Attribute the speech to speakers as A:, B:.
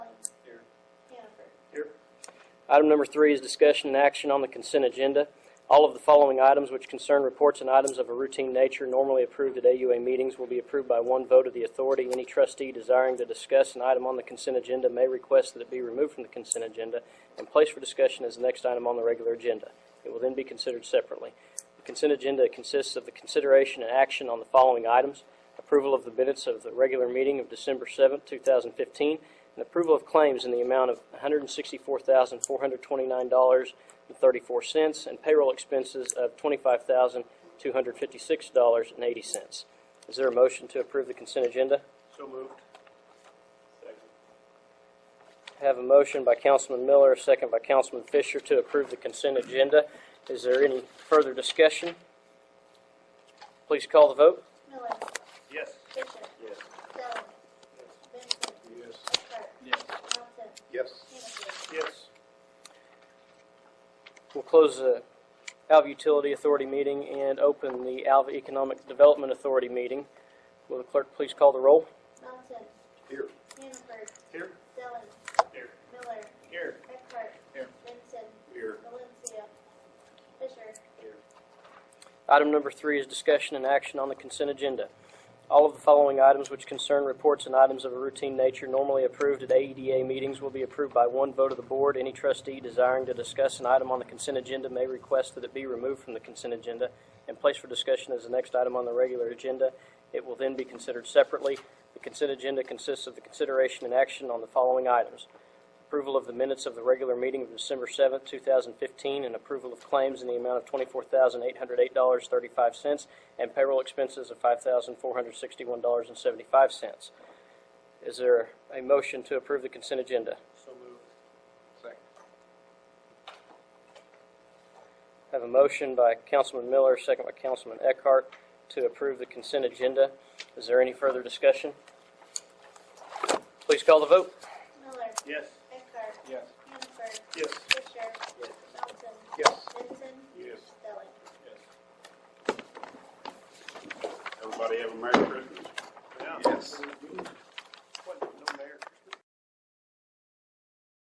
A: Item number three is discussion and action on the consent agenda. All of the following items which concern reports and items of a routine nature normally approved at AUA meetings will be approved by one vote of the authority. Any trustee desiring to discuss an item on the consent agenda may request that it be removed from the consent agenda and placed for discussion as the next item on the regular agenda. It will then be considered separately. The consent agenda consists of the consideration and action on the following items: approval of the minutes of the regular meeting of December 7, 2015, and approval of claims in the amount of $164,429.34 and payroll expenses of $25,256.80. Is there a motion to approve the consent agenda?
B: So moved. Second.
A: Have a motion by Councilman Miller, a second by Councilman Fisher to approve the consent agenda. Is there any further discussion? Please call the vote.
C: Miller.
B: Yes.
C: Fisher.
B: Yes.
C: Stelling. Benson.
B: Yes.
C: Eckhart.
B: Yes.
C: Melton.
B: Yes.
C: Hannaford.
B: Yes.
A: We'll close the Alva Utility Authority meeting and open the Alva Economic Development Authority meeting. Will the clerk please call the roll?
C: Melton.
B: Here.
C: Hannaford.
B: Here.
C: Stelling.
B: Here.
C: Miller.
B: Here.
C: Eckhart.
B: Here.
C: Benson.
B: Here.
C: Valencia. Fisher.
B: Here.
A: Item number three is discussion and action on the consent agenda. All of the following items which concern reports and items of a routine nature normally approved at AEDA meetings will be approved by one vote of the board. Any trustee desiring to discuss an item on the consent agenda may request that it be removed from the consent agenda and placed for discussion as the next item on the regular agenda. It will then be considered separately. The consent agenda consists of the consideration and action on the following items: approval of the minutes of the regular meeting of December 7th, 2015, and approval of claims in the amount of $24,808.35 and payroll expenses of $5,461.75. Is there a motion to approve the consent agenda?
B: So moved. Second.
A: I have a motion by Councilman Miller, second by Councilman Eckhart, to approve the consent agenda. Is there any further discussion? Please call the vote.
C: Miller.
B: Yes.
C: Eckhart.
B: Yes.
C: Hannaford.
B: Yes.
C: Fisher.
B: Yes.
C: Melton.
B: Yes.
C: Benson.
B: Yes.
C: Stelling.
D: Everybody have a Merry Christmas.
B: Yeah.
D: Yes.